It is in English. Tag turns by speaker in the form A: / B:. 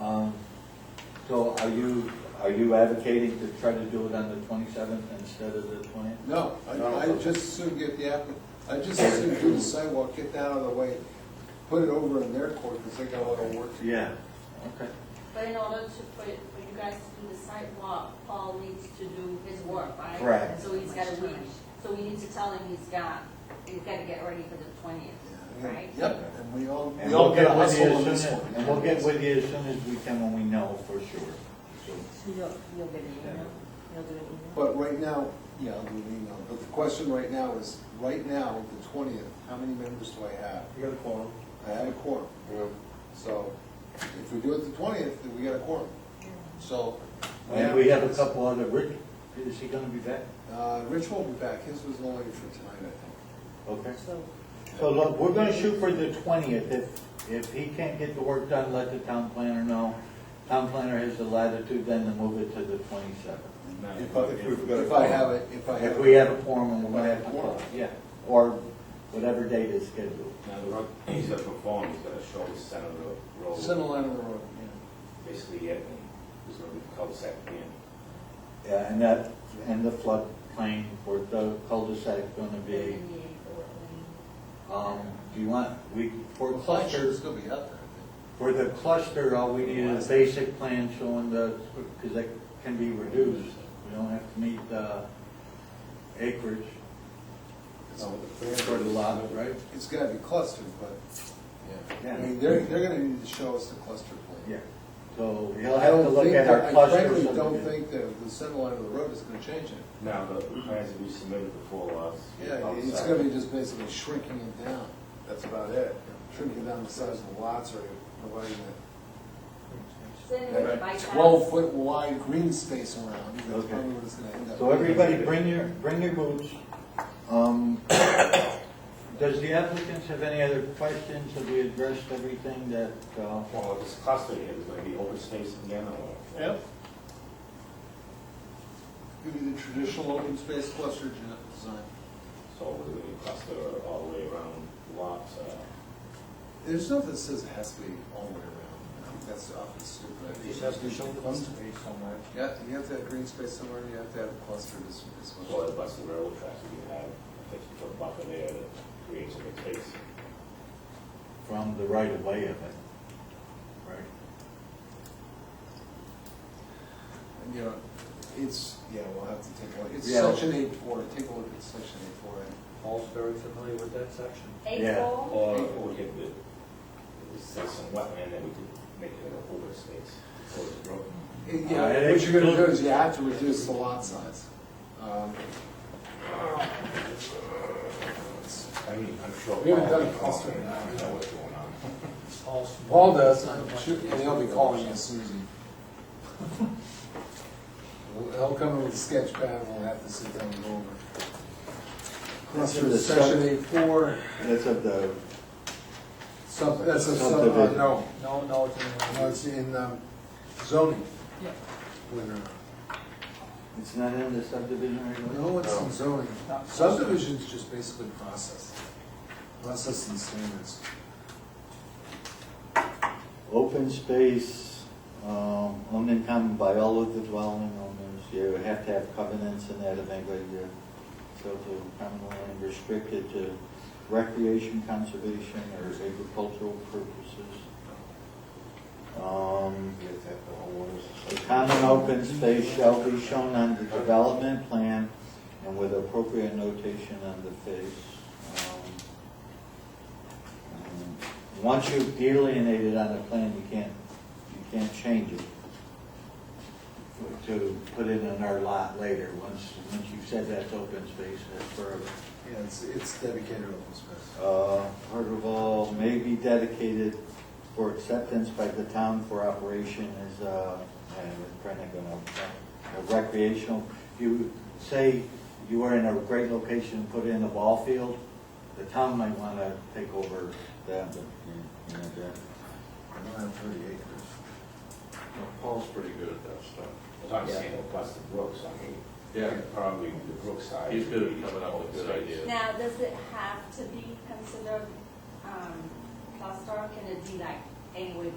A: Um, So are you, are you advocating to try to do it on the twenty-seventh instead of the twentieth?
B: No,
C: No.
B: I, I just soon get the app, I just soon do the sidewalk, get that out of the way, put it over in their court, because they got a lot of work to do.
A: Yeah. Okay.
D: But in order to, for, for you guys to do the sidewalk, Paul needs to do his work, right?
A: Correct.
D: So he's got a week, so we need to tell him he's got, he's gotta get ready for the twentieth, right?
B: Yep, and we all,
A: And
B: we all
A: we'll
B: got
A: get with you
B: hustle on
A: as
B: this
A: soon
B: one.
A: as- And we'll get with you as soon as we can when we know for sure. So,
E: So you'll, you'll get an email? You'll do an email?
B: But right now, yeah, I'll do an email, but the question right now is, right now, the twentieth, how many members do I have?
A: You got a call.
B: I have a quorum, so if we do it the twentieth, then we got a quorum, so.
A: And we have a couple other, Rick, is he gonna be back?
B: Uh, Rich will be back, his was only for tonight, I think.
A: Okay.
E: So,
A: So look, we're gonna shoot for the twentieth, if, if he can't get the work done, let the town planner know. Town planner has the latitude then to move it to the twenty-seventh.
B: If I, if I have it, if I have.
A: If
B: it.
A: we have a forum, and
B: If
A: we'll
B: I have
A: have to
B: a
A: call,
B: quorum.
A: yeah, or whatever date is scheduled.
C: Now, the road, he's gonna perform, he's gonna show the center of the road.
B: Center line of the road,
C: Basically, it, and there's gonna be cul-de-sac in.
A: Yeah, and that, and the floodplain where the cul-de-sac gonna
D: E
A: be. Um, do you want, we, for
B: yeah.
A: clusters,
B: still be out there, I
A: for the cluster, all we need is a basic plan showing the, because that can be reduced. We don't have to meet the acreage for the lot, right?
B: think. It's gotta be clustered, but,
A: Yeah.
B: I mean, they're, they're gonna need to show us the cluster plan.
A: Yeah, so you'll
B: I
A: have to
B: don't
A: look
B: think
A: at our
B: that-
A: cluster.
B: I frankly don't
A: subdivision.
B: think that the center line of the road is gonna change it.
C: Now, the plans that we submitted before us.
B: Yeah,
A: Oh,
B: it's
C: cul-de-sac.
B: gonna be just basically shrinking it down, that's about it. Shrinking down the size of the lots or providing
D: So anyway,
B: that-
D: by
B: that
D: that-
B: twelve-foot wide green space around, that's
A: Okay.
B: probably what it's gonna end up.
A: So everybody, bring your, bring your boots. Um, Does the applicants have any other questions? Have we addressed everything that, uh,
C: Well, this cluster here, there's gonna be open space again, or?
B: Yep. Give you the traditional open space cluster gen- design.
C: So we're gonna cluster all the way around the lot, uh,
B: There's nothing that says it has to be all the way around. I think that's often stupid.
F: It has to show cluster somewhere.
B: Yeah, you have to have green space somewhere, you have to have a cluster as, as
C: so
B: well.
C: the bus and railroad tracks, we can have a fifty-foot buffer there that creates some space.
A: from the right of way of it? Right.
B: And, you know, it's, yeah, we'll have to take a look. It's
A: Yeah.
B: section eight four, take a look at section eight four.
F: Paul's very familiar with that section.
D: Eight
A: Yeah.
D: four,
C: Or we could, do- there's some wetland that we could make it like a open space, so it's broken.
B: It-
A: Uh,
B: Yeah,
A: it
B: what you're gonna do
A: includes-
B: is you have to reduce the lot size. Um, it's-
C: I mean, I'm sure.
F: We haven't done a
C: Paul-
F: cluster.
C: I don't know what's going on.
F: Paul's-
B: Paul does, and he'll be calling you Susie. He'll come in with a sketch pad, and we'll have to sit down and go over. Cluster is section eight four,
A: That's of the,
B: sub, that's a sub, uh,
A: Subdivision.
B: no,
F: No, no, it's
B: no,
F: in.
B: it's in um, zoning.
F: Yeah.
B: Wait, no, no.
A: it's not in the subdivision right Oh. away?
B: No, it's in zoning.
F: Not-
B: Subdivision's just basically process, process and standards.
A: Open space, um, owned and common by all of the dwelling owners, you have to have covenants in that event, but you're so to common land restricted to recreation, conservation, or agricultural purposes. Um,
C: You have to have the homeowners.
A: The common open space shall be shown on the development plan and with appropriate notation on the face. Um, um, Once you've delineated on the plan, you can't, you can't change it to put it in our lot later. Once, once you've said that's open space, that's forever.
B: Yeah, it's, it's dedicated open space.
A: Uh, Part of all may be dedicated for acceptance by the town for operation as, uh, and it's probably not gonna, uh, a recreational. If you say you were in a great location, put in a ball field, the town might wanna take over that, but, you know, that.
B: I don't have thirty acres.
G: Paul's pretty good at that stuff.
C: As I'm saying, across the brooks, I mean, probably the brook side.
G: He's good at coming up with good ideas.
D: now, does it have to be considered, um, cluster, can it be like anywhere